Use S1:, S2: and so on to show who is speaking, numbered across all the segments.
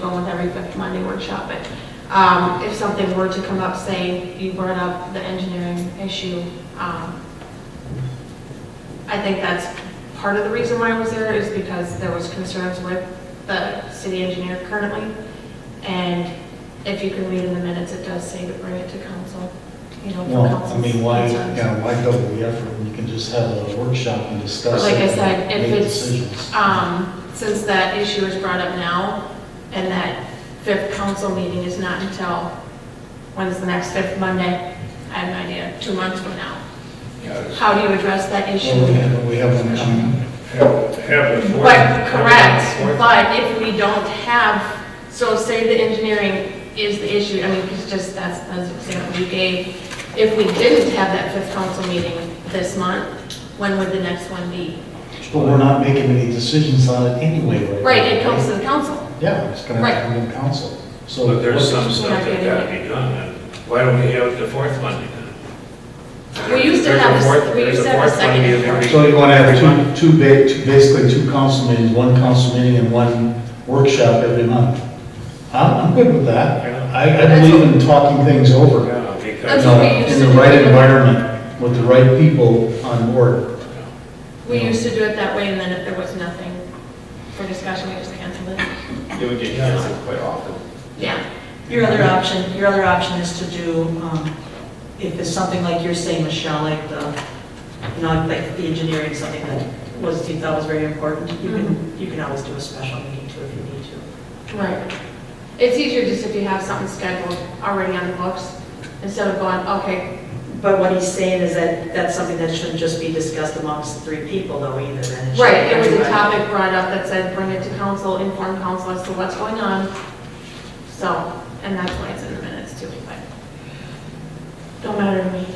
S1: go with every fifth Monday workshop, but um, if something were to come up, say you brought up the engineering issue, um, I think that's part of the reason why I was there is because there was concerns with the city engineer currently. And if you can read in the minutes, it does say to bring it to council, you know, for
S2: Well, I
S1: council's
S2: mean, why,
S1: concerns.
S2: yeah, why double the effort when you can just have a workshop and discuss it?
S1: Like I
S2: and
S1: said, if
S2: make
S1: it's-
S2: decisions?
S1: Um, since that issue is brought up now, and that fifth council meeting is not until, when's the next fifth Monday? I have no idea, two months from now. How do you address that
S2: Well, we
S1: issue?
S2: have, we have one coming.
S3: Have, have it.
S1: But, correct, but if we don't have, so say the engineering is the issue, I mean, it's just, that's, that's the example you gave. If we didn't have that fifth council meeting this month, when would the next one be?
S2: But we're not making any decisions on it anyway, right?
S1: Right, it
S2: now,
S1: comes to the council.
S2: Yeah, it's gonna
S1: Right.
S2: come to council. So
S3: But there's some
S2: what-
S3: stuff that got to be done, and why don't we have the fourth Monday then?
S1: We used to
S3: There's a
S1: have a s-
S3: fourth-
S1: we
S3: there's
S1: used to have a
S3: fourth Monday
S1: second
S3: of every-
S2: So you wanna have
S3: every month.
S2: two, two ba, two- basically two council meetings, one council meeting and one workshop every month. I'm, I'm good with that. I, I believe in talking things over.
S3: Yeah,
S1: That's
S2: you
S3: Because,
S1: what
S2: know,
S1: we used
S2: in
S1: to
S2: the
S1: do.
S2: right environment, with the right people on board.
S1: We used to do it that way, and then if there was nothing for discussion, we just canceled it.
S4: It would get canceled quite often.
S1: Yeah,
S5: Your other option, your other option is to do, um, if it's something like you're saying, Michelle, like the, you know, like the engineering, something that was, you thought was very important, you
S1: Mm-hmm.
S5: can, you can always do a special meeting too if you need to.
S1: right. It's easier just if you have something scheduled already on the books, instead of going, okay,
S5: But what he's saying is that that's something that shouldn't just be discussed amongst three people though either, then it should.
S1: right, it was a
S5: everybody-
S1: topic brought up that said, bring it to council, inform council as to what's going on. So, and that's why it's in the minutes too, but don't matter to me.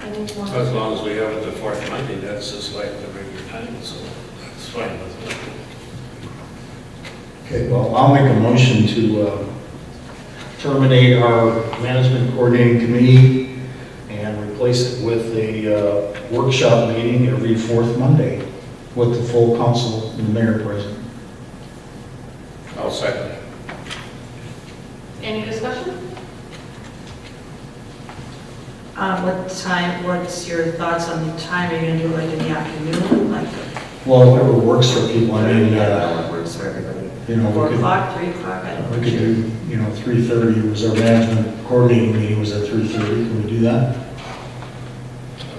S1: I don't- I need one.
S3: as long as we have it the fourth Monday, that's just like the regular time, so that's fine with me.
S2: Okay, well, I'll make a motion to uh, terminate our management coordinating committee and replace it with a uh, workshop meeting every fourth Monday with the full council and the mayor present.
S3: I'll second it.
S1: Any discussion?
S5: Um, what time, what's your thoughts on the time, are you gonna do it like in the afternoon, like
S2: Well, whatever works for people, I mean, uh,
S4: That one works for everybody.
S2: you know,
S5: four
S2: we could,
S5: o'clock, three o'clock? I don't know.
S2: we could do, you know, 3:30 was our management coordinating meeting was at 3:30. Can we do that?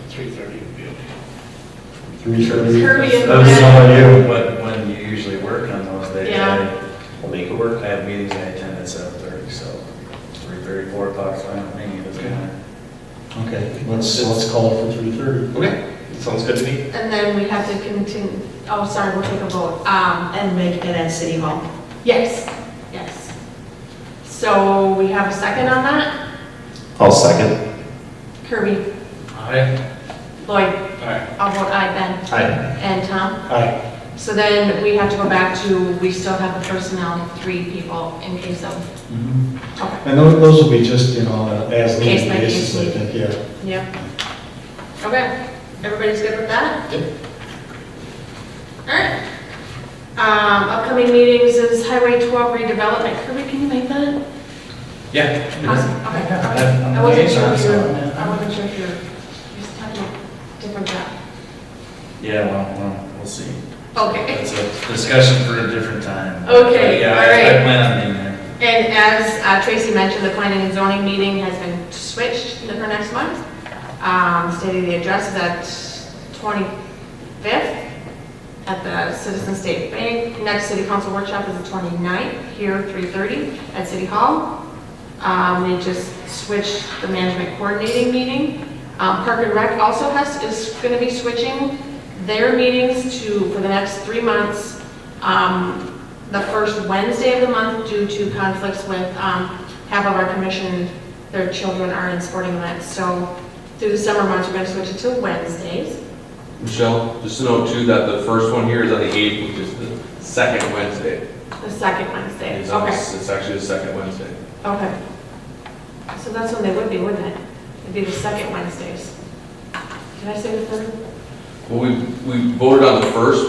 S3: Three thirty would be okay.
S2: 3:30?
S1: Kirby and
S2: That's
S1: Brad.
S2: all I do.
S4: When, when you usually work on those, they,
S1: Yeah.
S4: they make it work. I have meetings I attend at seven thirty, so three thirty, four o'clock, fine with me, it doesn't matter.
S2: Okay, let's, let's call it for 3:30.
S4: Okay, sounds good to me.
S1: And then we have to continue, oh, sorry, we'll take a vote. Um,
S5: And make it at City Hall?
S1: yes, yes. So we have a second on that?
S4: I'll second.
S1: Kirby,
S3: Aye.
S1: Lloyd,
S3: Aye.
S1: I'll vote aye, Ben,
S2: Aye.
S1: and Tom.
S2: Aye.
S1: So then we have to go back to, we still have the personnel, three people in case of,
S2: Mhm.
S1: okay,
S2: And tho- those will be just, you know, uh, as
S1: Case
S2: needed
S1: by case.
S2: basis, I think, yeah.
S1: yeah. Okay, everybody's good with that?
S2: Yep.
S1: All right. Um, upcoming meetings is Highway 12 redevelopment. Kirby, can you make that?
S4: Yeah.
S1: Awesome, okay.
S2: Yeah, I'm-
S1: I wasn't sure
S2: I'm
S1: if you
S2: liaison,
S1: were,
S2: so-
S1: I wasn't sure if you were, you just have a different job.
S4: Yeah, well, well, we'll see.
S1: Okay,
S4: That's a discussion for a different time.
S1: Okay,
S4: But Yeah,
S1: all
S4: I-
S1: right.
S4: I plan on being there.
S1: and as uh, Tracy mentioned, the planning and zoning meeting has been switched to- for next month. Um, Stating the address is at 25th at the Citizen State Bank. Next city council workshop is the 29th, here, 3:30 at City Hall. Um, They just switched the management coordinating meeting. Um, Park and Rec also has, is going to be switching their meetings to, for the next three months, um, the first Wednesday of the month due to conflicts with um, half of our commission, their children are in sporting events. So through the summer months, we're going to switch it to Wednesdays.
S6: Michelle, just to know too, that the first one here is on the 8th, which is the second Wednesday.
S1: The second Wednesday,
S6: It's on-
S1: okay,
S6: It's actually the second Wednesday.
S1: okay. So that's when they would be, wouldn't it? It'd be the second Wednesdays. Did I say the third?
S6: Well, we, we voted on the first,